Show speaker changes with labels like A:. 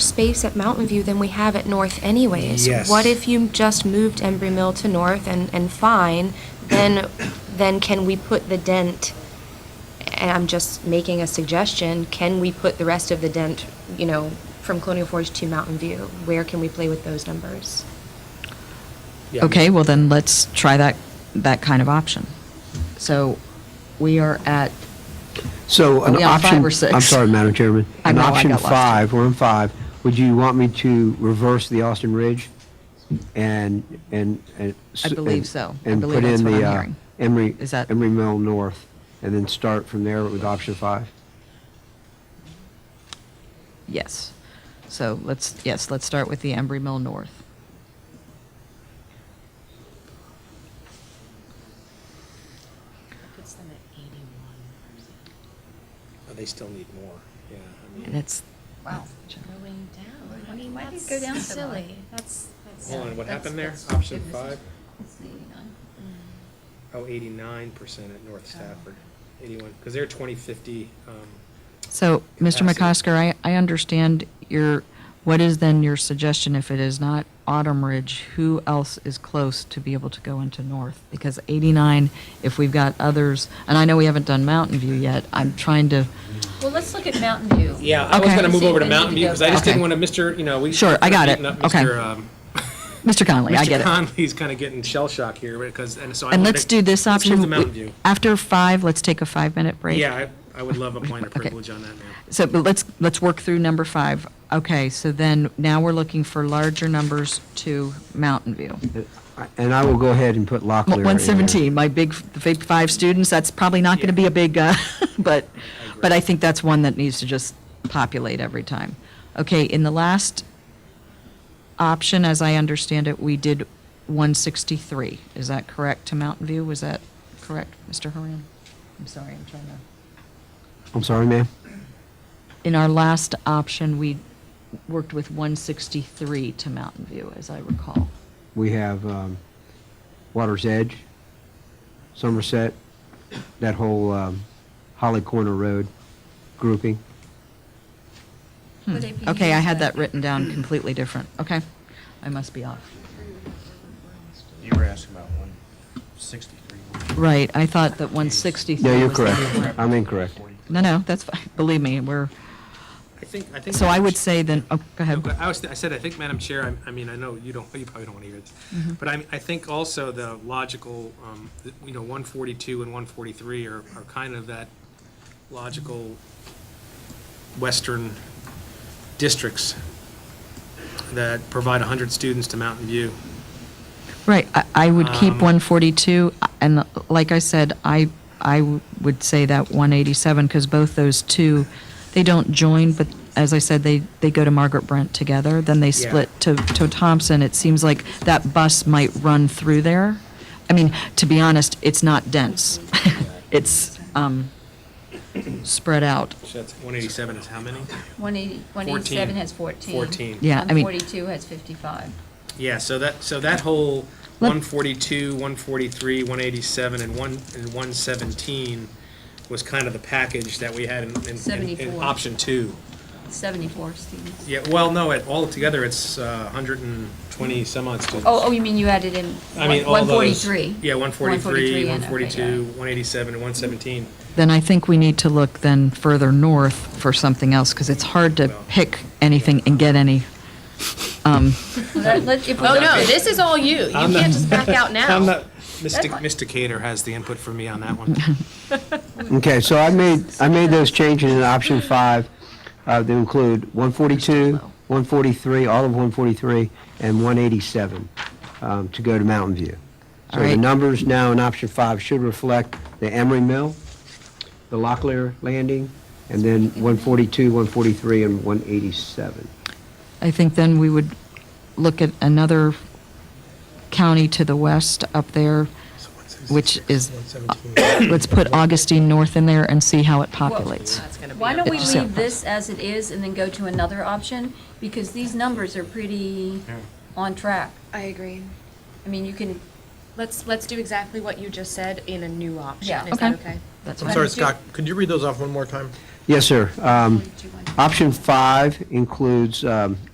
A: space at Mountain View than we have at North anyways.
B: Yes.
A: What if you just moved Embry Mill to North and, and fine, then, then can we put the dent, and I'm just making a suggestion, can we put the rest of the dent, you know, from Colonial Forge to Mountain View? Where can we play with those numbers?
B: Yeah,
C: Okay, well then, let's try that, that kind of option. So we are at,
D: So
C: Are
D: an
C: we on five
D: option,
C: or six?
D: I'm sorry, Madam Chairman.
C: I
D: An
C: know, I
D: option
C: got lost.
D: five, we're on five. Would you want me to reverse the Austin Ridge and, and? and s-
C: I believe
D: and-
C: so. I
D: And
C: believe
D: put
C: that's
D: in
C: what I'm
D: the uh,
C: hearing.
D: Emery,
C: Is that-
D: Emery Mill North and then start from there with option five?
C: yes. So let's, yes, let's start with the Embry Mill North.
E: Puts them at eighty-one.
B: but Oh, They still need more, yeah. I mean-
C: And it's,
E: Wow. Going down. I mean, why did it go down so low?
A: That's, that's. Mm.
B: Hold on, what happened there?
E: That's- that's
B: Option
E: good.
B: five?
E: It's eighty-nine.
B: Oh, 89% at North Stafford,
C: Oh.
B: 81, because they're 2050. um,
C: so, Mr.
B: Capacity.
C: McCosker, I, I understand your, what is then your suggestion if it is not Autumn Ridge? Who else is close to be able to go into North? Because 89, if we've got others, and I know we haven't done Mountain View yet, I'm trying to,
E: Well, let's look at Mountain View.
B: Yeah, I was
C: Okay.
B: going to move over to
E: See, then
B: Mountain
E: you
B: View
E: go
B: because I just
C: back.
B: didn't want to, Mr., you know, we.
C: Sure, I got it.
B: beating up
C: Okay.
B: Mr., um,
C: Mr. Conley, I
B: Mr.
C: get it.
B: Conley's kind of getting shell shock here because, and so. I
C: And
B: wanted
C: let's
B: to-
C: do this
B: let's move
C: option.
B: to Mountain View.
C: After five, let's take a five-minute break.
B: Yeah, I I would love a point of
C: Okay.
B: privilege on that now.
C: So, but let's, let's work through number five. Okay, so then now we're looking for larger numbers to Mountain View.
D: And I will go ahead and put Locklear in there.
C: 117, my big, the big five students, that's probably not going to be a big, uh, but, but I think that's one that needs to just populate every time. Okay, in the last option, as I understand it, we did 163. Is that correct to Mountain View? Was that correct, Mr. Haran? I'm sorry, I'm trying to.
D: I'm sorry, ma'am?
C: In our last option, we worked with 163 to Mountain View, as I recall.
D: We have um, Water's Edge, Somerset, that whole um, Holly Corner Road grouping.
B: Hmm.
E: Would it be
C: Okay, I had
E: used
C: that written down completely different. Okay, I must be off.
F: You were asking about one sixty-three.
C: Right, I thought that 163
D: No, you're
C: was the
D: correct.
C: different-
D: I'm incorrect.
C: No, no, that's fine, believe me, we're,
B: I think, I think.
C: so I would
B: say.
C: say then, oh,
B: No,
C: go ahead.
B: but I was, I said, I think, Madam Chair, I, I mean, I know you don't, you probably don't want to hear this,
C: Mm-hmm.
B: but I, I think also the logical, um, th- you know, one forty-two and one forty-three are, are kind of that logical western districts that provide hundred students to Mountain View.
C: Right, I, I would keep
B: Um,
C: 142, and like I said, I, I w- would say that 187, because both those two, they don't join, but as I said, they, they go to Margaret Brent together, then they
B: Yeah.
C: split to, to Thompson. It seems like that bus might run through there. I mean, to be honest, it's not dense. It's, um, spread out.
B: So that's one eighty-seven is how many?
E: One eighty, one eighty-seven has fourteen.
B: 14.
C: Yeah, I mean-
E: One forty-two has fifty-five.
B: Yeah, so that, so that whole
C: Let-
B: one forty-two, one forty-three, one eighty-seven, and one, and one seventeen was kind of the package that we had in- in- in, in
E: 74.
B: option two.
E: Seventy-four students.
B: Yeah, well, no, it, altogether, it's a hundred and twenty some odd students.
E: Oh, oh, you mean you added in
B: I mean, all
E: one
B: those-
E: forty-three?
B: Yeah, one forty-three, one forty-two,
E: and
B: one eighty-seven, and one seventeen.
C: Then I think we need to look then further north for something else, because it's hard to
B: Well-
C: pick anything and get any. Um,
A: Oh, no, this is all you. You
B: I'm
A: can't just back out now.
B: I'm not, Mysticator has the input for me on that one.
D: Okay, so I made, I made those changes in option five uh, to include 142, 143, all of 143, and 187 um, to go to Mountain View. So
C: All
D: the
C: right.
D: numbers now in option five should reflect the Emery Mill, the Locklear Landing, and then 142, 143, and 187.
C: I think then we would look at another county to the west up there, which is, let's put Augustine North in there and see how it populates.
E: Why don't we
C: It's so-
E: leave this as it is and then go to another option? Because these numbers are pretty on track.
G: I agree.
E: I mean, you can,
G: Let's, let's do exactly what you just said in a new option.
E: Yeah.
G: Is that
C: Okay.
G: okay?
C: That's
F: I'm
C: fine.
F: sorry, Scott, could you read those off one more time?
D: Yes, sir. Um,
G: Do you want-
D: Option five includes um,